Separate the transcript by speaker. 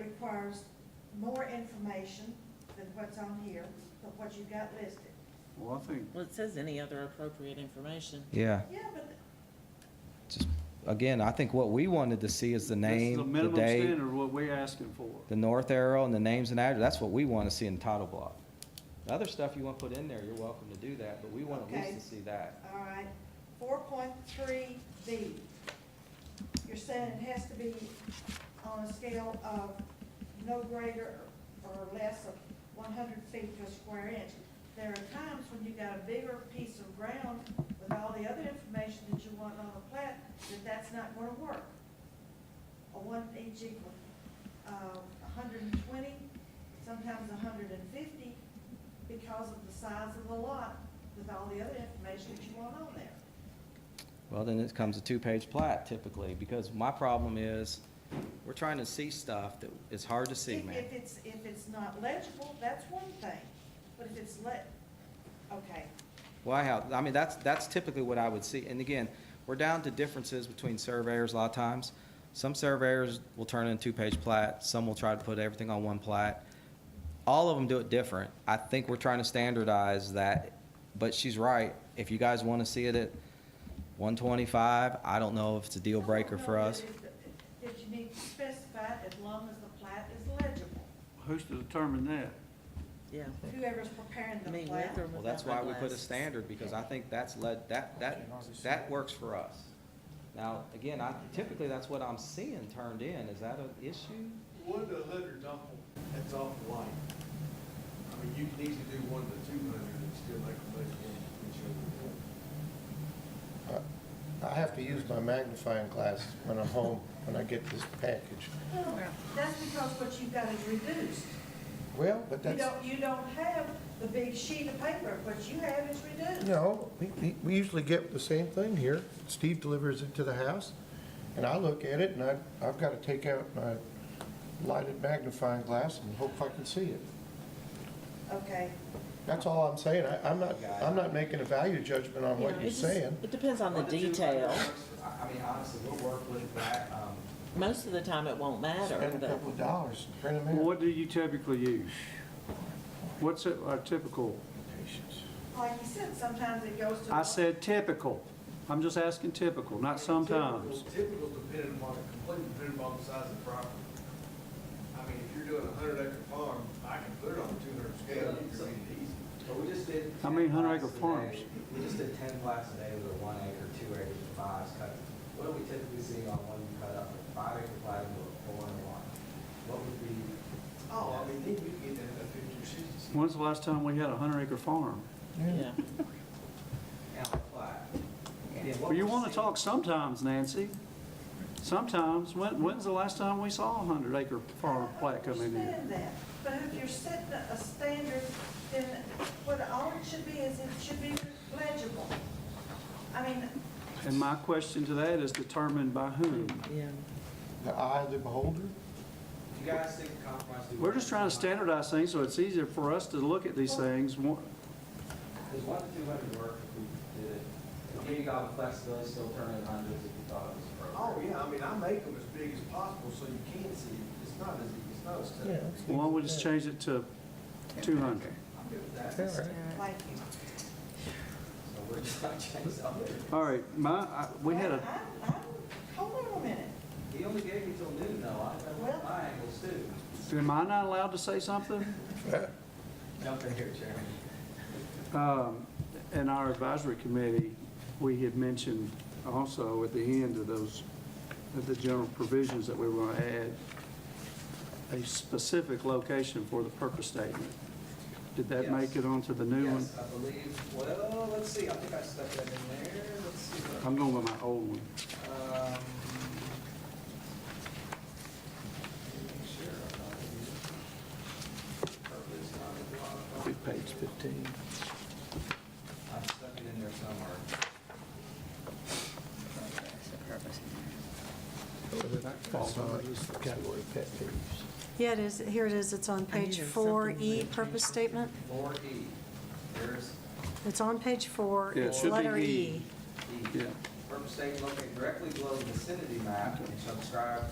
Speaker 1: requires more information than what's on here, than what you got listed.
Speaker 2: Well, I think,
Speaker 3: Well, it says any other appropriate information.
Speaker 4: Yeah,
Speaker 1: Yeah, but
Speaker 4: just, again, I think what we wanted to see is
Speaker 2: this
Speaker 4: the
Speaker 2: is the
Speaker 4: name, the
Speaker 2: minimum
Speaker 4: date,
Speaker 2: standard, what we're asking for.
Speaker 4: the north arrow, and the names and address, that's what we want to see in the title block. The other stuff you want to put in there, you're welcome to do that, but we want at
Speaker 1: Okay.
Speaker 4: least to see that.
Speaker 1: All right, four point three B. You're saying it has to be on a scale of no greater or less of one hundred feet to a square inch. There are times when you got a bigger piece of ground with all the other information that you want on a plat, that that's not gonna work. A one inch equal, uh, hundred and twenty, sometimes hundred and fifty, because of the size of the lot with all the other information that you want on there.
Speaker 4: Well, then it comes a two-page plat typically, because my problem is, we're trying to see stuff that is hard to see,
Speaker 1: If-
Speaker 4: man.
Speaker 1: If it's, if it's not legible, that's one thing, but if it's le, okay,
Speaker 4: Well, I have, I mean, that's, that's typically what I would see. And again, we're down to differences between surveyors a lot of times. Some surveyors will turn in two-page plat, some will try to put everything on one plat. All of them do it different. I think we're trying to standardize that, but she's right. If you guys want to see it at one twenty-five, I don't know if it's a deal breaker for us.
Speaker 1: That you need to specify it as long as the plat is legible.
Speaker 2: Who's to determine that?
Speaker 3: Yeah.
Speaker 1: Whoever's preparing
Speaker 3: I
Speaker 1: the
Speaker 3: mean, with
Speaker 1: plat.
Speaker 3: or
Speaker 4: Well,
Speaker 3: without
Speaker 4: that's why we put a
Speaker 3: eyeglasses.
Speaker 4: standard, because I think that's led, that, that, that works for us. Now, again, I, typically, that's what I'm seeing turned in. Is that an issue?
Speaker 5: One to a hundred's awful, that's awful light. I mean, you can easily do one to two hundred and still make a budget in each other.
Speaker 6: Uh, I- I have to use my magnifying glass when I'm home, when I get this package.
Speaker 1: Well, That's because what you've got is reduced.
Speaker 6: Well, but
Speaker 1: You
Speaker 6: that's,
Speaker 1: don't, you don't have the big sheet of paper, what you have is reduced.
Speaker 6: no, we- we, we usually get the same thing here. Steve delivers it to the house, and I look at it, and I, I've got to take out my lighted magnifying glass and hope I can see it.
Speaker 1: Okay,
Speaker 6: That's all I'm saying. I, I'm not, I'm not making a value judgment on
Speaker 3: Yeah,
Speaker 6: what
Speaker 3: it
Speaker 6: you're
Speaker 3: just-
Speaker 6: saying.
Speaker 3: It depends on the detail.
Speaker 4: I, I mean, honestly, we'll work with that, um,
Speaker 3: Most of the time, it won't matter,
Speaker 6: Spend a
Speaker 3: but
Speaker 6: couple of dollars, print them
Speaker 2: Well,
Speaker 6: out.
Speaker 2: What do you typically use? What's a a typical?
Speaker 6: Patience.
Speaker 1: like you said, sometimes it goes to.
Speaker 2: I said typical. I'm just asking typical, not sometimes.
Speaker 5: Typical- Typical depending upon, completely depending upon the size of the property. I mean, if you're doing a hundred acre farm, I can put it on a two hundred scale, you can read it easy.
Speaker 7: But we just did.
Speaker 2: How many
Speaker 7: 10
Speaker 2: hundred
Speaker 7: plots
Speaker 2: acre
Speaker 7: a
Speaker 2: farms?
Speaker 7: day. We just did ten plots a day with a one acre, two acre, and fives cut. What do we typically see on one cut up, a five acre plat into a four and a one? What would be,
Speaker 5: Oh, I mean, then you can get that at fifty or sixty. Oh,
Speaker 2: When's the last time we had a hundred acre farm?
Speaker 3: yeah.
Speaker 7: and a plat? And what
Speaker 2: Well, you
Speaker 7: we
Speaker 2: want to
Speaker 7: see-
Speaker 2: talk sometimes, Nancy. Sometimes, when, when's the last time we saw a hundred acre farm plat come in
Speaker 1: I
Speaker 2: here?
Speaker 1: understand that, but if you're setting a a standard, then what all it should be is it should be legible. I mean,
Speaker 2: And my question to that is determined by whom?
Speaker 3: Yeah.
Speaker 6: The eye of the beholder?
Speaker 7: You guys think the compromise. we-
Speaker 2: We're just trying to standardize things so it's easier for us to look at these things. One-
Speaker 7: Does one to two hundred work if we did it? If we got the flexibility, still turning hundreds if you thought it was
Speaker 5: Oh,
Speaker 7: appropriate.
Speaker 5: yeah, I mean, I make them as big as possible so you can see, it. it's not as, it's not as
Speaker 6: Yeah.
Speaker 5: tough.
Speaker 2: Why don't we just change it to two hundred?
Speaker 7: I'm good with that.
Speaker 6: Yeah, right.
Speaker 1: like you.
Speaker 7: So we're just not changing something.
Speaker 2: All right, my, I- we had a,
Speaker 1: I- I- I- Hold on a minute.
Speaker 7: He only gave me till noon though, I,
Speaker 1: Well-
Speaker 7: my angles too.
Speaker 2: am I not allowed to say something?
Speaker 7: Jump in here, Chairman.
Speaker 2: Um, In our advisory committee, we had mentioned also at the end of those, of the general provisions that we were going to add, a specific location for the purpose statement. Did that make it onto the new one?
Speaker 7: Yes, I believe, well, let's see, I think I stuck that in there, let's see. what-
Speaker 2: I'm going with my old one.
Speaker 7: Um, Sure. Purpose, not a lot.
Speaker 2: Page 15.
Speaker 7: I stuck it in there somewhere.
Speaker 6: Category pet peeves.
Speaker 8: Yeah, it is, here it is, it's on
Speaker 3: I knew
Speaker 8: page
Speaker 3: there was
Speaker 8: four
Speaker 3: something
Speaker 8: E,
Speaker 3: like that.
Speaker 8: purpose statement.
Speaker 7: Four E, there's
Speaker 8: It's on page four,
Speaker 2: Yeah, it
Speaker 8: it's
Speaker 2: should be
Speaker 8: letter
Speaker 2: E.
Speaker 8: E.
Speaker 7: E.
Speaker 2: Yeah.
Speaker 7: Purpose statement located directly below the vicinity map and shall describe